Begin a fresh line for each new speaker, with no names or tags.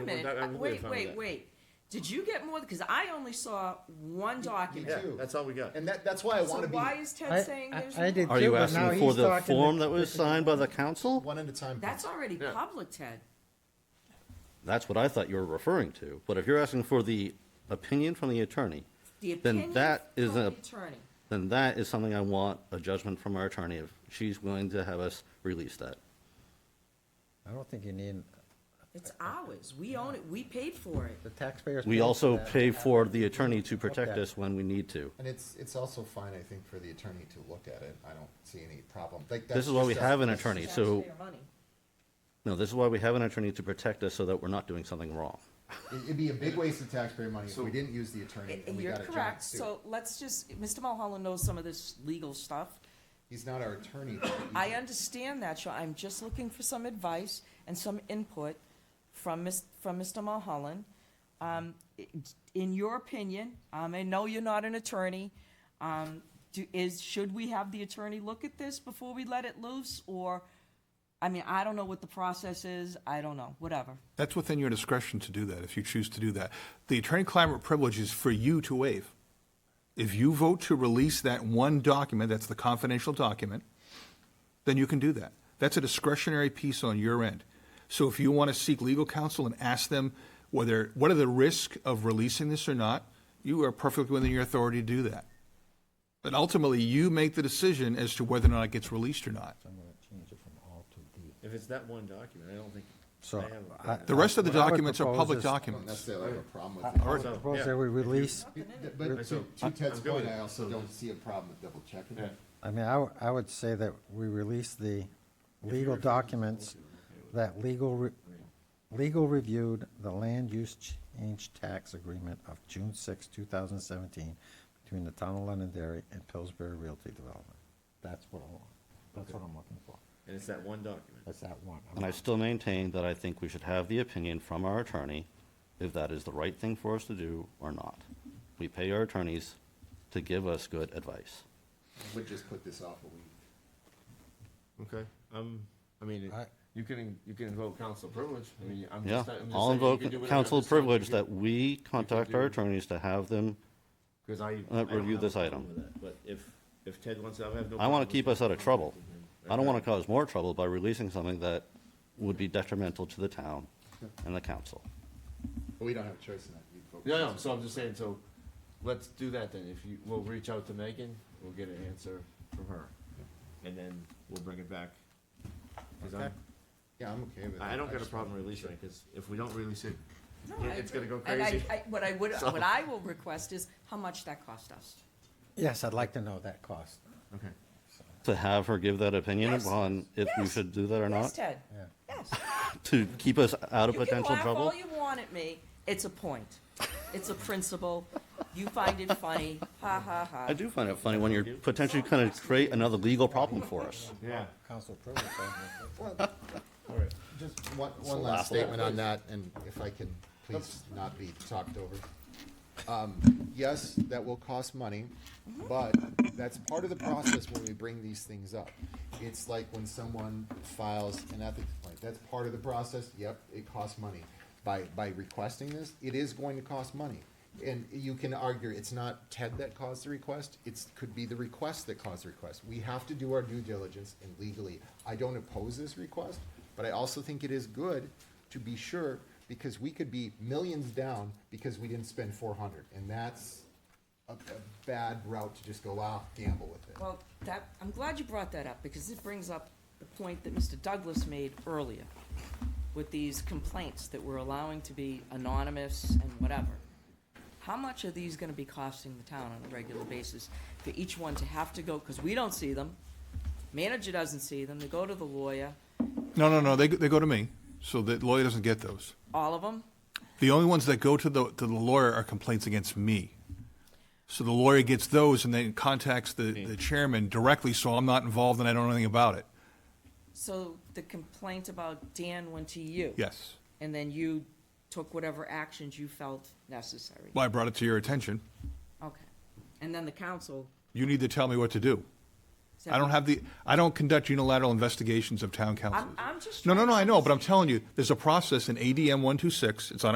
a minute,
doc-
uh,
I'm
wait,
fine with
wait,
that.
wait. Did you get more? Because I only saw one document.
Yeah,
Two.
that's all we got.
And that, that's why I
So
want to
why
be
is
I-
Ted saying
I-
there's
I did
more?
Are you
but now
asking
he's
for the
talking to-
form that was signed by the council?
one at a time.
That's already
Yeah.
public, Ted.
That's what I thought you were referring to, but if you're asking for the opinion from the attorney,
The
Then
opinion
that is
from the
a-
attorney.
then that is something I want a judgment from our attorney if she's willing to have us release that.
I don't think you need,
It's ours. We own it. We paid for it.
the taxpayers. paid
We
for
also
that.
pay for the attorney to protect
Okay.
us when we need to.
And it's, it's also fine, I think, for the attorney to look at it. I don't see any problem. Like, that's
This is why we
just us-
have an
that's
attorney,
It's
so,
taxpayer money.
no, this is why we have an attorney to protect us so that we're not doing something wrong.
It- It'd be a big waste of taxpayer money if
So-
we didn't use the attorney and we
You're
got a giant
correct.
suit.
So let's just, Mr. Mulholland knows some of this legal stuff.
He's not our attorney.
I understand that, Sean. I'm just looking for some advice and some input from Ms., from Mr. Mulholland. Um, i- in your opinion, um, I know you're not an attorney, um, do, is, should we have the attorney look at this before we let it loose? Or, I mean, I don't know what the process is. I don't know, whatever.
That's within your discretion to do that, if you choose to do that. The attorney-client privilege is for you to waive. If you vote to release that one document, that's the confidential document, then you can do that. That's a discretionary piece on your end. So if you want to seek legal counsel and ask them whether, what are the risks of releasing this or not, you are perfectly within your authority to do that. But ultimately, you make the decision as to whether or not it gets released or not.
I'm gonna change it from all to D.
If it's that one document, I don't think.
So,
I have a
I-
problem.
The rest of the
What I would
documents are
propose
public
is- I don't
I don't
documents.
necessarily have a problem
I
with it.
I would
So,
propose
yeah.
that we release,
But- But to-
So,
to Ted's
I'm good with
point,
it.
I also don't see a problem with double checking it.
I mean, I, w- I would say that we release the legal documents that legal, re- legal reviewed the land use change tax agreement of June 6, 2017 between the town of Londonderry and Pillsbury Realty Development. That's what I want. That's what I'm looking for.
And it's that one document.
That's that one.
And I still maintain that I think we should have the opinion from our attorney if that is the right thing for us to do or not. We pay our attorneys to give us good advice.
Would just put this off a week.
Okay, um, I mean,
I-
you can, you can invoke council privilege, I mean, I'm
Yeah,
just. I'm just
I'll
saying you
invoke
can do whatever. I'm
council
just saying you
privilege
can-
that we contact our
do-
attorneys to have them,
'cause I. I
uh,
don't
review
have a
this
problem
item.
with that, But if, if Ted wants, to, I have
I
no. problem
want
with
to keep
it.
us out of trouble. I don't want to
Okay.
cause more trouble by releasing something that would be detrimental to the town and the council.
But we don't have a choice in that. We'd vote
No, no,
yes.
so I'm just saying, so let's do that then. If you, we'll reach out to Megan, we'll get an answer from her. And then we'll bring it back. 'Cause I'm-
Yeah, I'm okay with it.
I don't got a
just-
problem releasing it, cause if we don't release it,
No,
Yeah,
I
it's gonna
agree.
go
And I-
crazy.
I- What I would,
So-
what I will request is how much that cost us.
Yes, I'd like to know that cost.
okay.
To have her give that opinion
Yes,
upon if we
yes,
should do that or
Yes,
not,
Ted?
Yeah.
Yes.
to keep us out of
You can
potential
laugh
trouble.
all you want at me. It's a point. It's a principle. You find it funny. Ha ha ha.
I do find it funny when you're potentially going to create another legal problem for us.
Yeah.
Council privilege. I think.
Just one, one last statement on that, and if I can please not be talked over. Um, yes, that will cost money, but that's part of the process when we bring these things up. It's like when someone files an ethics complaint, that's part of the process, yep, it costs money. By, by requesting this, it is going to cost money. And you can argue, it's not Ted that caused the request, it's, could be the request that caused the request. We have to do our due diligence and legally, I don't oppose this request, but I also think it is good to be sure because we could be millions down because we didn't spend four hundred, and that's a, a bad route to just go out gamble with it.
Well, that, I'm glad you brought that up because it brings up the point that Mr. Douglas made earlier with these complaints that we're allowing to be anonymous and whatever. How much are these gonna be costing the town on a regular basis for each one to have to go, because we don't see them, manager doesn't see them, they go to the lawyer,
No, no, no, they, go- they go to me, so the lawyer doesn't get those.
all of them?
The only ones that go to the, to the lawyer are complaints against me. So the lawyer gets those and then contacts the, the chairman directly, so I'm not involved and I don't know anything about it.
So the complaint about Dan went to you?
Yes.
And then you took whatever actions you felt necessary?
Well, I brought it to your attention.
Okay. And then the council
You need to tell me what to do.
that
I don't have the, I don't conduct unilateral investigations of town councils.
I'm just
No, no,
trying
no,
to
I know, but I'm telling you, there's a process in ADM 126, it's on